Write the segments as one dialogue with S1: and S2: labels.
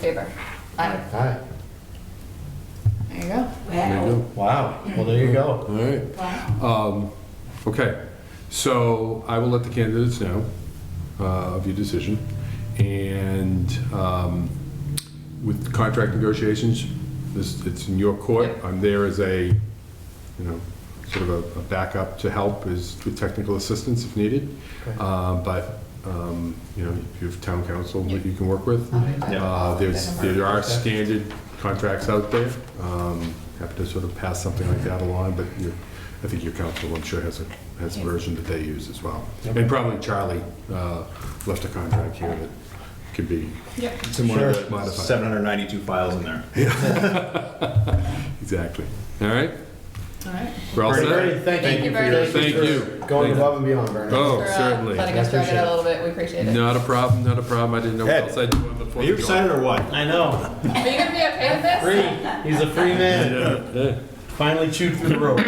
S1: Favor? Aye.
S2: Hi.
S1: There you go.
S2: There you
S3: Wow, well, there you
S2: go.
S3: go.
S2: All right.
S4: Um, Okay, so I will let the candidates know uh, of your decision. And um, with contract negotiations, this, it's in your court.
S1: Yep.
S4: I'm there as a, you know, sort of a- a backup to help is with technical assistance if needed.
S3: Okay.
S4: Uh, But, um, you know, if you have town council that you can work with.
S1: I'll be back.
S4: Uh, There's, there are standard contracts out there. Um, Happy to sort of pass something like that along, but you- I think your council, I'm sure, has a, has a version that they use as well. And probably Charlie uh, left a contract here that could be,
S1: Yep.
S3: Some more of the
S4: Modified.
S3: 792 files in there.
S4: exactly. All right?
S1: All right.
S4: We're all set?
S2: Bernie, thank you.
S1: Thank you very
S2: for your-
S4: much. Thank you.
S2: Going
S4: Thank you.
S2: above and beyond, Bernie.
S4: Oh,
S1: For, uh,
S4: certainly.
S1: Letting us
S2: I
S1: drag it
S2: appreciate
S1: out
S2: it.
S1: a little bit, we appreciate it.
S4: Not a problem, not a problem. I didn't know what
S3: Ed,
S4: else I did before.
S3: Are you
S4: the
S3: excited or what?
S5: I know.
S1: Are you gonna be okay with this?
S5: Free. He's a free man.
S4: Yeah.
S5: Finally chewed through the rope.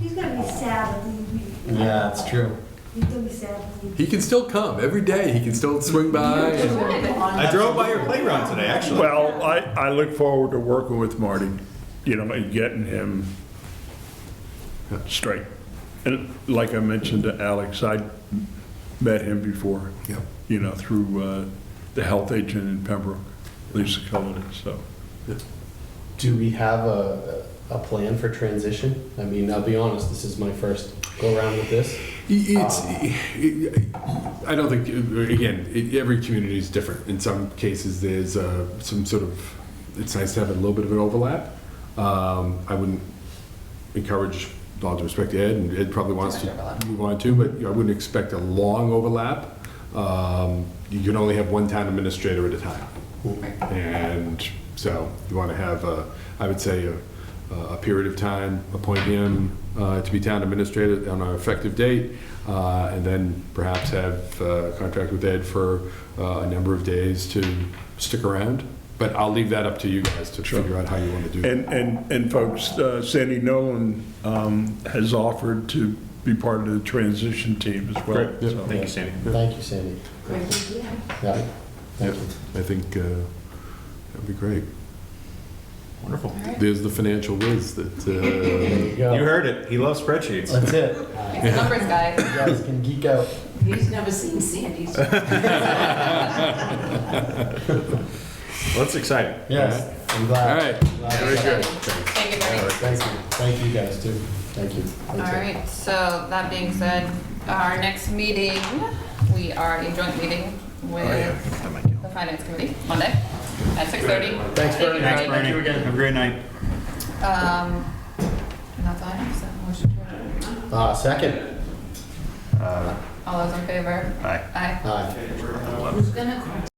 S6: He's gonna be sad when you leave.
S5: yeah, it's true.
S6: He's gonna be sad when you
S4: He can still come every day. He can still swing by. and-
S1: Good.
S3: I drove by your playground today, actually.
S7: Well, I, I look forward to working with Marty, you know, and getting him straight. And like I mentioned to Alex, I met him before,
S4: Yep.
S7: you know, through uh, the health agent in Pembroke, Lisa Cullen, so.
S2: Do we have a, a plan for transition? I mean, I'll be honest, this is my first go around with this.
S4: It's, I don't think, again, it- every community is different. In some cases, there's uh, some sort of, it's nice to have a little bit of an overlap. Um, I wouldn't encourage, with all due respect to Ed, and Ed probably wants
S1: Too much
S4: to
S1: overlap.
S4: move on too, but I wouldn't expect a long overlap. Um, You can only have one town administrator at a time. And so you want to have, uh, I would say, a a period of time, appoint him uh, to be town administrator on an effective date, uh, and then perhaps have uh, contract with Ed for uh, a number of days to stick around. But I'll leave that up to you guys to figure out how you want to do that.
S7: And, and, and folks, uh, Sandy Nolan um, has offered to be part of the transition team as well.
S4: Great, yeah.
S7: so.
S3: Thank you, Sandy.
S2: Thank you, Sandy.
S6: leave. Yeah.
S2: Yeah, thank you.
S4: I think uh, that'd be great.
S3: Wonderful.
S4: There's the financial whiz that,
S2: There
S4: uh,
S2: you go.
S3: You heard it. He loves spreadsheets.
S2: That's it.
S1: He's a numbers guy.
S2: You guys can geek out.
S8: He's never seen Sandy's.
S3: Well, that's exciting.
S2: Yes, I'm
S4: all
S2: glad.
S4: right.
S2: Glad.
S4: Very good.
S1: Thank you, Bernie.
S2: Thank you, thank you guys too. Thank you.
S1: All right, so that being said, our next meeting, we are in joint meeting with the Finance Committee, Monday, at 6:30.
S2: Thanks,
S1: Thank you,
S2: Bernie.
S3: Thanks, Bernie. Have a great night.
S1: Um, and that's all I have, so motion to adjourn.
S2: Uh, second.
S1: All those in favor?
S3: Bye.
S1: Aye.
S2: Aye.
S8: Who's gonna call